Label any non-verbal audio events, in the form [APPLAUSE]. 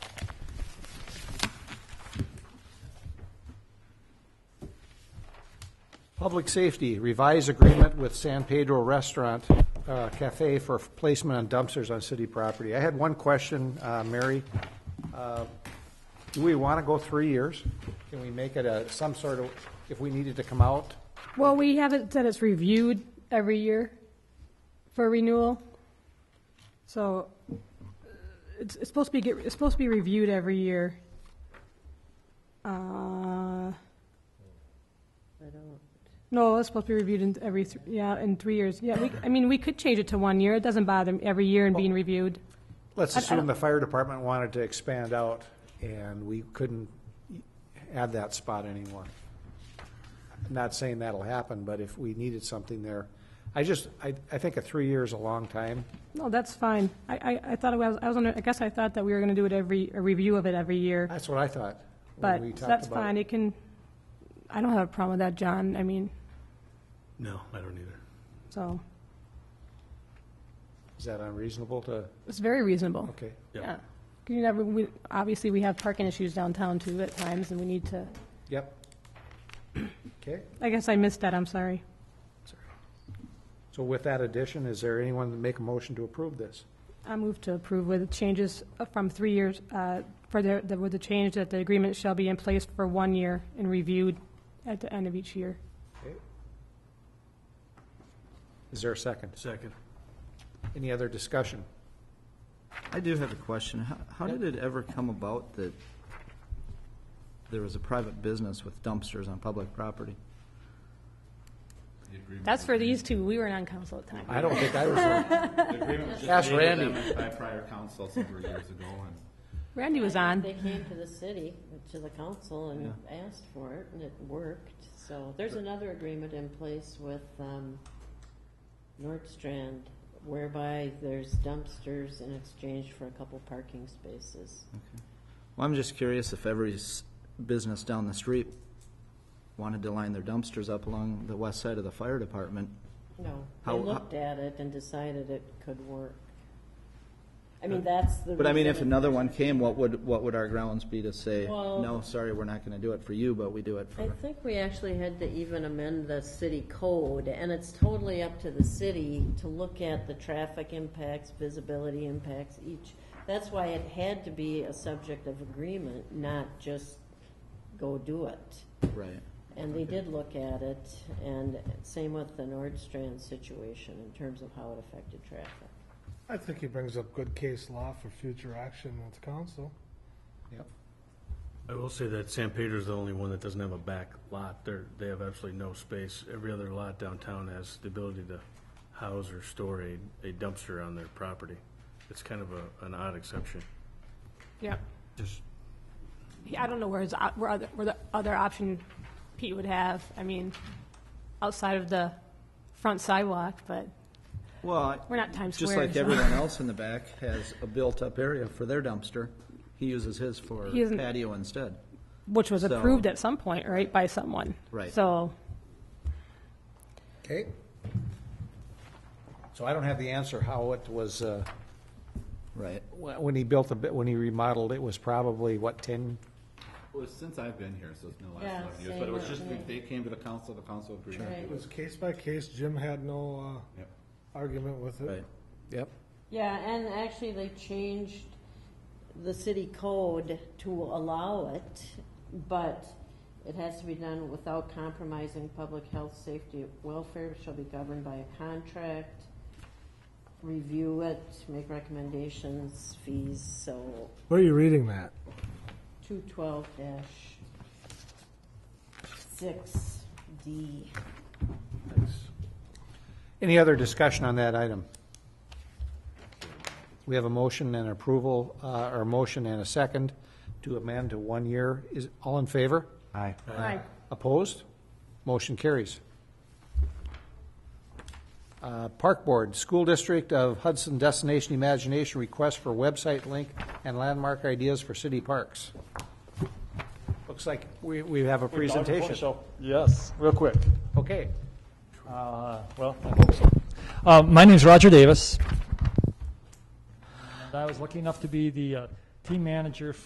Public safety, revise agreement with San Pedro Restaurant uh, Cafe for placement on dumpsters on city property. I had one question, uh, Mary. Uh, Do we want to go three years? Can we make it a, some sort of, if we needed to come out? Well, we haven't said it's reviewed every year for renewal. So uh, it's, it's supposed to be, get- it's supposed to be reviewed every year. Uh, No, it's supposed to be reviewed in every, th- yeah, in three years. Yeah, we, I mean, we could change it to one year. It doesn't bother me every year and being reviewed. Let's I- I assume don't- the fire department wanted to expand out and we couldn't add that spot anymore. I'm Not saying that'll happen, but if we needed something there, I just, I, I think a three year is a long time. No, that's fine. I, I, I thought it was, I was under, I guess I thought that we were going to do it every, a review of it every year. That's what I thought. when we But talked that's about it. fine, it can, I don't have a problem with that, John, I mean, No, I don't either. so, Is that unreasonable to, it's very reasonable. okay. Yeah. Yeah. 'Cause You never, we, obviously, we have parking issues downtown too at times, and we need to, Yep. Okay, I guess I missed that, I'm sorry. so with that addition, is there anyone to make a motion to approve this? I move to approve with changes from three years, uh, for the, the- with the change that the agreement shall be in place for one year and reviewed at the end of each year. Okay. Is there a second? Second. Any other discussion? I do have a question. How, how did it ever come about that there was a private business with dumpsters on public property? That's for these two, we weren't on council at the time. I don't think I was there. [LAUGHS] The agreement was Ask just made Randy. with them by prior council several years ago, and Randy was on. They came to the city, to the council, and asked for it, and it worked. So there's another agreement in place with um, Nordstrand whereby there's dumpsters in exchange for a couple parking spaces. Well, I'm just curious if every s- business down the street wanted to line their dumpsters up along the west side of the fire department. No, they How- looked at it and decided it could work. I mean, that's the. But I mean, if reason- another one came, what would, what would our grounds be to say, Well- no, sorry, we're not gonna do it for you, but we do it I for, think we actually had to even amend the city code, and it's totally up to the city to look at the traffic impacts, visibility impacts, each. That's why it had to be a subject of agreement, not just go do it. right? And they did look at it, and same with the Nordstrand situation in terms of how it affected traffic. I think he brings up good case law for future action with the council. Yep. I will say that San Pedro's the only one that doesn't have a back lot. They're, they have absolutely no space. Every other lot downtown has the ability to house or store a, a dumpster on their property. It's kind of a, an odd exception. Yeah. Just, Yeah, I don't know where his, op- where other, where the other option Pete would have, I mean, outside of the front sidewalk, but Well, I- we're not Times just Square. like so- [LAUGHS] everyone else in the back has a built-up area for their dumpster, he uses his for He isn't- patio instead. Which was so- approved at some point, right, by someone? Right. So, Okay. So I don't have the answer how it was, uh, Right. wh- when he built the, bu- when he remodeled, it was probably, what, 10? it was since I've been here, so it's been the last Yeah, eleven years. same But it was with just, me. they came to the council, the council agreed. to Right. do It it. was case by case. Jim had no Yep. uh, argument with it. Right. Yep. Yeah, and actually, they changed the city code to allow it, but it has to be done without compromising public health, safety, welfare, shall be governed by a contract, review it, make recommendations, fees, so Where are you reading that? two twelve dash six D. Any other discussion on that item? We have a motion and approval, uh, or a motion and a second to amend to one year. Is, all in favor? Aye. Aye. Opposed? Motion carries. Uh, Park Board, School District of Hudson Destination Imagination request for website link and landmark ideas for city parks. Looks like we, we have a presentation. So, Yes, real quick. Okay. Uh, Well, I hope so. Uh, My name's Roger Davis. And I was lucky enough to be the uh, team manager